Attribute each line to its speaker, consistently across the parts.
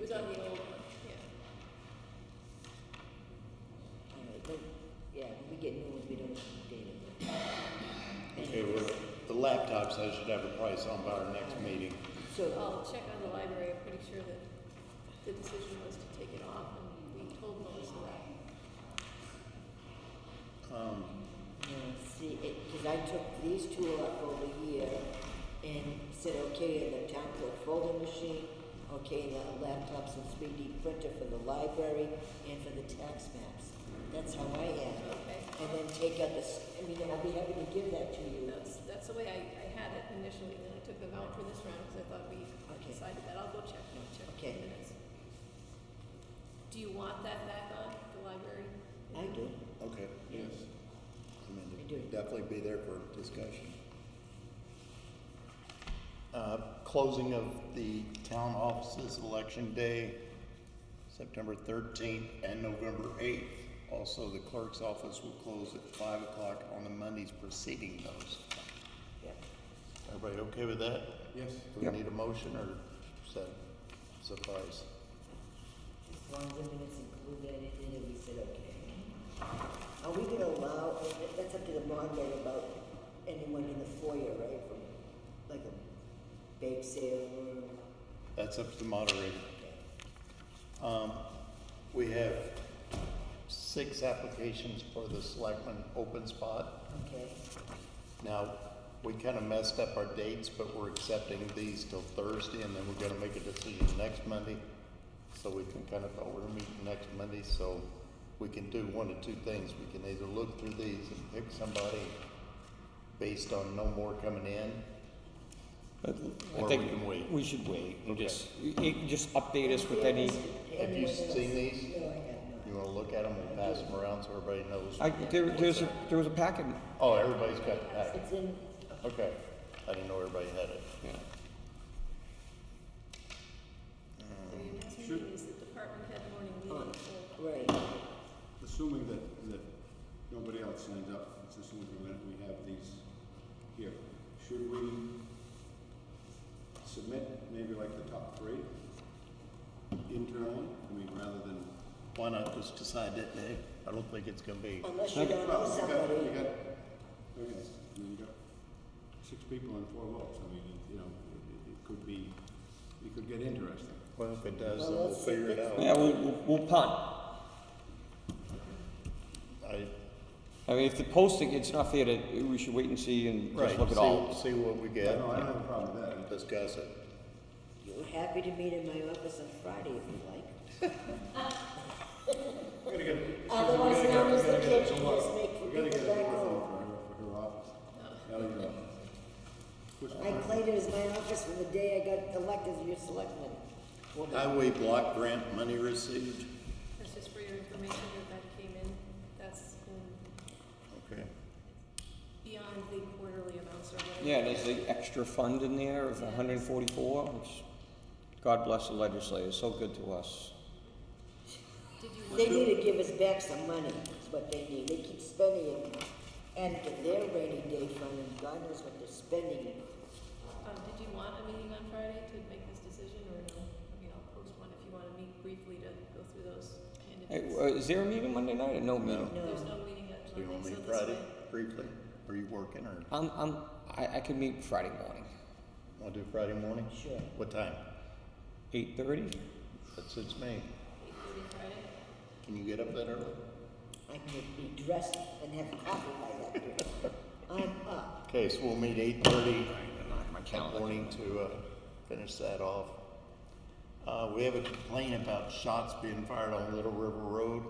Speaker 1: was on the old one.
Speaker 2: Yeah.
Speaker 1: All right, but, yeah, we get new ones, we don't update them.
Speaker 3: Okay, well, the laptops, I should have a price on by our next meeting.
Speaker 1: So, uh,
Speaker 2: I'll check on the library, I'm pretty sure that the decision was to take it off, and we told Melissa that.
Speaker 3: Um,
Speaker 1: yeah, see, it, cause I took these two up over here and said, okay, in the town clerk folding machine, okay, the laptops and three D printer for the library and for the tax maps. That's how I am.
Speaker 2: Okay.
Speaker 1: And then take out the, s- I mean, I'll be happy to give that to you.
Speaker 2: That's, that's the way I, I had it initially, and then I took them out for this round, because I thought we
Speaker 1: Okay.
Speaker 2: decided that, I'll go check, I'll check the
Speaker 1: Okay.
Speaker 2: minutes. Do you want that back on, the library?
Speaker 1: I do.
Speaker 3: Okay, yes. I mean,
Speaker 1: I do.
Speaker 3: it'd definitely be there for discussion. Uh, closing of the town offices, election day, September thirteenth and November eighth. Also, the clerk's office will close at five o'clock on the Mondays preceding those.
Speaker 1: Yep.
Speaker 3: Everybody okay with that? Yes. Do we need a motion or is that suffice?
Speaker 1: As long as the minutes include that in, then we said, okay. Are we gonna allow, that- that's up to the moderator about anyone in the foyer, right, from, like a bake sale or,
Speaker 3: That's up to the moderator. Um, we have six applications for the selectman open spot.
Speaker 1: okay?
Speaker 3: Now, we kind of messed up our dates, but we're accepting these till Thursday, and then we're gonna make a decision next Monday. So we can kind of, order meeting next Monday, so we can do one of two things. We can either look through these and pick somebody based on no more coming in,
Speaker 4: But
Speaker 3: Or
Speaker 4: I
Speaker 3: we can wait.
Speaker 4: think we should wait and
Speaker 3: Okay.
Speaker 4: just, you- you can just update us with any,
Speaker 3: Have you seen these?
Speaker 1: No, I have not.
Speaker 3: You wanna look at them and pass them around so everybody knows?
Speaker 4: I, there, there's a, there was a packet.
Speaker 3: Oh, everybody's got the packet.
Speaker 1: It's in,
Speaker 3: Okay, I didn't know everybody had it.
Speaker 4: Yeah.
Speaker 2: The next meeting is the department head morning meeting,
Speaker 1: Uh.
Speaker 2: so
Speaker 1: right,
Speaker 5: Assuming that, that nobody else signed up, it's assuming for a minute we have these here. Should we submit maybe like the top three internally? I mean, rather than,
Speaker 3: Why not just decide that day? I don't think it's gonna be,
Speaker 1: unless you don't know
Speaker 5: well, you got, you
Speaker 1: somebody.
Speaker 5: got, okay, I mean, you got six people and four votes. I mean, you know, it, it- it could be, it could get interesting.
Speaker 3: well, if it does,
Speaker 1: Well,
Speaker 3: then we'll
Speaker 1: let's see.
Speaker 3: figure it out.
Speaker 4: Yeah, we'll, we'll- we'll punt.
Speaker 3: I,
Speaker 4: I mean, if the posting, it's not fair to, we should wait and see and
Speaker 3: right,
Speaker 4: just look at all.
Speaker 3: see, see what we get,
Speaker 5: No, I don't have a problem with that.
Speaker 3: and discuss it.
Speaker 1: You're happy to meet in my office on Friday if you like.
Speaker 5: We're gonna get-
Speaker 1: Otherwise
Speaker 5: we're gonna
Speaker 1: known as
Speaker 5: get-
Speaker 1: the
Speaker 5: we're gonna get
Speaker 1: kitchen,
Speaker 5: some luck.
Speaker 1: just make for
Speaker 5: We're gonna
Speaker 1: people
Speaker 5: get a
Speaker 1: back
Speaker 5: microphone
Speaker 1: home.
Speaker 5: For her, for her office. Ellie, your office. Which
Speaker 1: I
Speaker 5: one?
Speaker 1: claimed it as my office from the day I got elected as your selectman.
Speaker 3: Highway block grant money received,
Speaker 2: that's just for your information that that came in, that's um,
Speaker 3: okay.
Speaker 2: beyond the quarterly amounts or whatever.
Speaker 4: Yeah, there's the extra fund in there of hundred and forty-four, which, God bless the legislators, so good to us.
Speaker 2: Did you want
Speaker 1: They need to give us back some money, is what they need. They keep spending it. And to their rainy day fund, and God knows what they're spending it on.
Speaker 2: Um, did you want a meeting on Friday to make this decision, or no? I mean, I'll post one if you want to meet briefly to go through those
Speaker 4: Hey,
Speaker 2: candidates.
Speaker 4: uh, is there a meeting Monday night or no meeting?
Speaker 2: There's
Speaker 1: No,
Speaker 2: no meeting at
Speaker 3: Do you want
Speaker 2: Monday,
Speaker 3: me
Speaker 2: so this
Speaker 3: Friday
Speaker 2: way.
Speaker 3: briefly? Are you working or,
Speaker 4: I'm, I'm, I, I could meet Friday morning,
Speaker 3: wanna do Friday morning?
Speaker 1: sure.
Speaker 3: What time?
Speaker 4: eight thirty?
Speaker 3: That suits me.
Speaker 2: Eight thirty Friday?
Speaker 3: Can you get up that early?
Speaker 1: I could be dressed and have coffee by that time. I'm up.
Speaker 3: Okay, so we'll meet eight thirty that morning to, uh, finish that off. Uh, we have a complaint about shots being fired on Little River Road.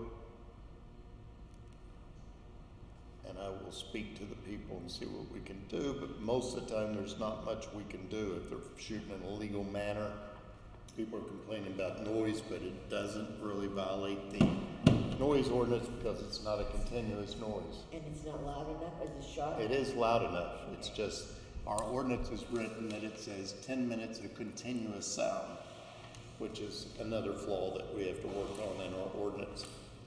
Speaker 3: And I will speak to the people and see what we can do, but most of the time, there's not much we can do if they're shooting in a legal manner. People are complaining about noise, but it doesn't really violate the noise ordinance because it's not a continuous noise.
Speaker 1: And it's not loud enough as a shot?
Speaker 3: It is loud enough, it's just, our ordinance is written that it says ten minutes of continuous sound, which is another flaw that we have to work on in our ordinance.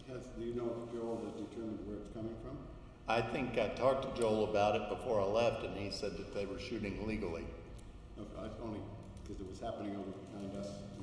Speaker 5: Has, do you know if Joel has determined where it's coming from?
Speaker 3: I think I talked to Joel about it before I left, and he said that they were shooting legally.
Speaker 5: No, I only, because it was happening over behind us